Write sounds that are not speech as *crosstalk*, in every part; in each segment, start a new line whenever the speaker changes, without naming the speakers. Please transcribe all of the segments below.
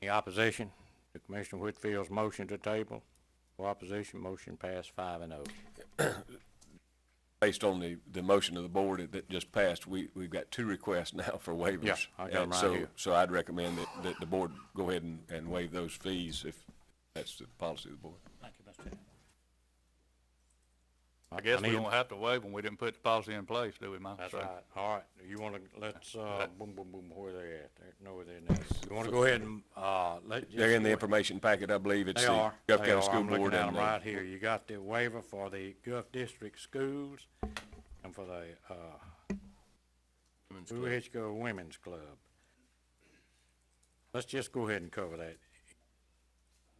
Any opposition to Commissioner Whitfield's motion to table? For opposition, motion passed five and oh.
based on the, the motion of the board that- that just passed, we, we've got two requests *laughs* now for waivers.
Yeah, I got 'em
And
right
so-
here.
So I'd recommend that, that the board go ahead and, and waive those fees if that's the policy of the board.
Thank you, Mr. Chairman.
I guess we
need-
don't have to waive them. We didn't put the policy in place, do we, Mike?
That's
So-
right. All right, you wanna, let's, uh, boom, boom, boom, where they at? They know where they're now. You wanna go ahead and, uh, let. just
They're in the
go-
information packet, I believe. It's
They
the
are.
Gulf
They are.
County School
I'm looking
Board
at
and uh,
'em right
the
here. You got the waiver for the Gulf District Schools and for the, uh, Blue Hitchcock Women's Club. Let's just go ahead and cover that.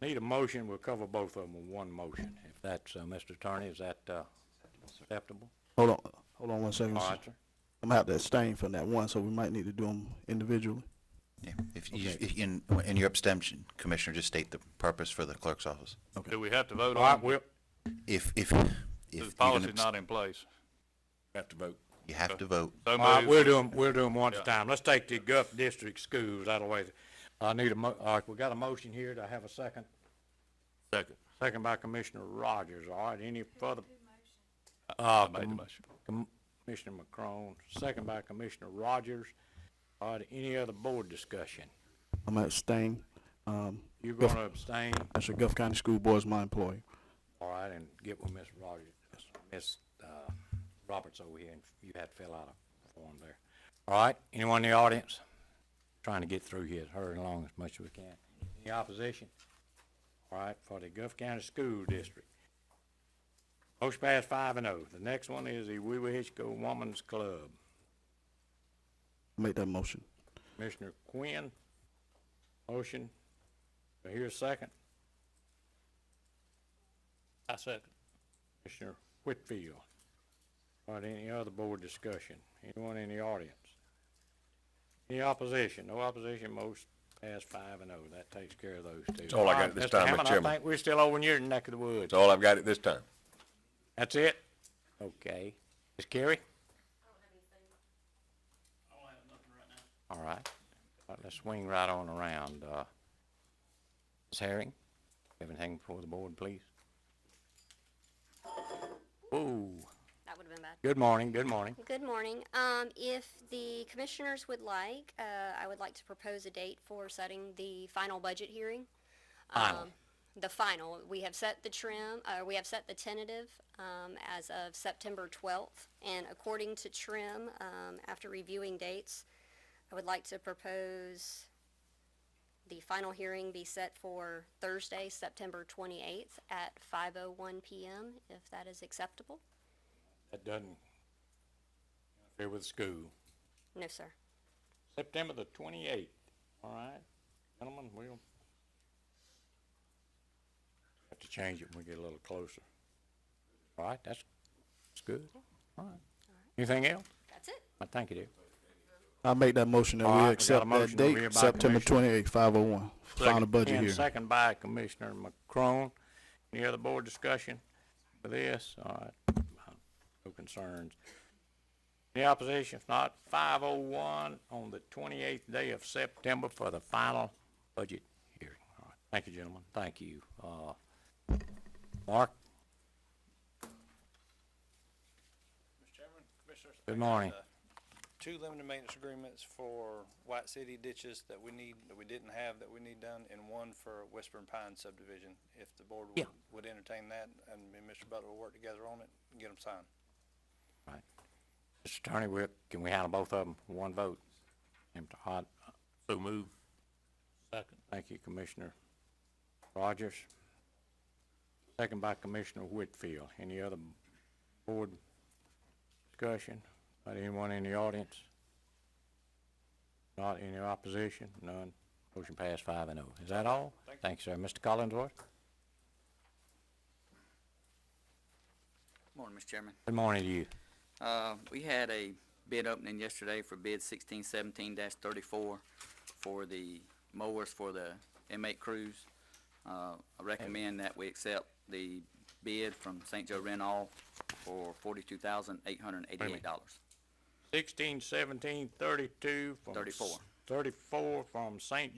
Need a motion, we'll cover both of them in one motion. If that's, uh, Mr. Attorney, is that, uh, acceptable?
Hold on, hold on one second.
All
sir.
right, sir.
I'm gonna have to abstain from that one, so we might need to do them individually.
Yeah, if you, if- in, in your abstention, Commissioner, just state the purpose for the clerk's office.
Do we have to vote
All right,
on
we'll,
If, if,
it?
if
The
you're gonna
policy's not in place.
have to vote.
abst- you have to vote,
So
all right,
moved.
we'll do them, we'll do them one at a
Yeah.
time. Let's take the Gulf District Schools out of the way. I need a mo, all right, we got a motion here. Do I have a second?
Second.
Second by Commissioner Rogers. All right, any further? Uh,
I made the motion.
Com- Commissioner McCrone, second by Commissioner Rogers. All right, any other board discussion?
I'm gonna abstain. Um,
You're
Gulf-
gonna abstain,
that's your Gulf County School Board is my employee.
all right, and get with Ms. Rogers, Ms. uh, Roberts over here, and you had to fill out a form there. All right, anyone in the audience? Trying to get through here, hurry along as much as we can. Any opposition? All right, for the Gulf County School District. Motion passed five and oh. The next one is the Wee Wee Hitchcock Woman's Club.
Make that motion.
Commissioner Quinn, motion. Do I hear a second?
I second.
Commissioner Whitfield. All right, any other board discussion? Anyone in the audience? Any opposition? No opposition, most pass five and oh. That takes care of those two. That's
all I got at this time, Mr.
I
Chairman.
think we're still over in your neck of the woods.
That's all I've got at this time.
That's it? Okay. Ms. Carey? I don't have anything. I don't have nothing right now. All right. All right, let's swing right on around. Uh, Ms. Herring, you have anything before the board, please? Whoa.
That would have been bad.
Good morning, good morning.
Good morning. Um, if the commissioners would like, uh, I would like to propose a date for setting the final budget hearing.
Final.
Um, The final. We have set the trim, uh, we have set the tentative, um, as of September twelfth. And according to trim, um, after reviewing dates, I would like to propose the final hearing be set for Thursday, September twenty-eighth at five oh one PM, if that is acceptable.
That doesn't interfere with school.
No, sir.
September the twenty-eighth, all right? Gentlemen, we'll have to change it when we get a little closer. All right, that's, that's good. All right. Anything else?
That's it.
I think it is.
I make that motion that
All right, we
we
got a
accept
motion
that
to read
date,
by
September
Commissioner.
twenty-eighth, five oh one. Final budget
And
here.
second by Commissioner McCrone. Any other board discussion for this? All right, no concerns. Any opposition? If not, five oh one on the twenty-eighth day of September for the final budget hearing. All right, thank you, gentlemen, thank you. Uh, Mark?
Mr. Chairman, Commissioners.
Good morning.
I got, uh, Two limited maintenance agreements for White City ditches that we need, that we didn't have, that we need done, and one for Whispering Pine subdivision. If the board
Yeah.
would, would entertain that, and me and Mr. Butler will work together on it and get them signed.
All right. Mr. Attorney, we, can we handle both of them, in one vote? Mr. Hod,
So move.
Second.
Thank you, Commissioner Rogers. Second by Commissioner Whitfield. Any other board discussion? Not anyone in the audience? Not any opposition? None. Motion passed five and oh. Is that all? Thank you, sir. Mr. Collinsworth?
Morning, Mr. Chairman.
Good morning to you.
Uh, we had a bid opening yesterday for bid sixteen seventeen thirty-four for the mowers for the inmate crews. Uh, I recommend that we accept the bid from St. Joe Renall for forty-two thousand eight hundred and eighty-eight dollars.
Sixteen, seventeen, thirty-two from.
Thirty-four.
Thirty-four from St.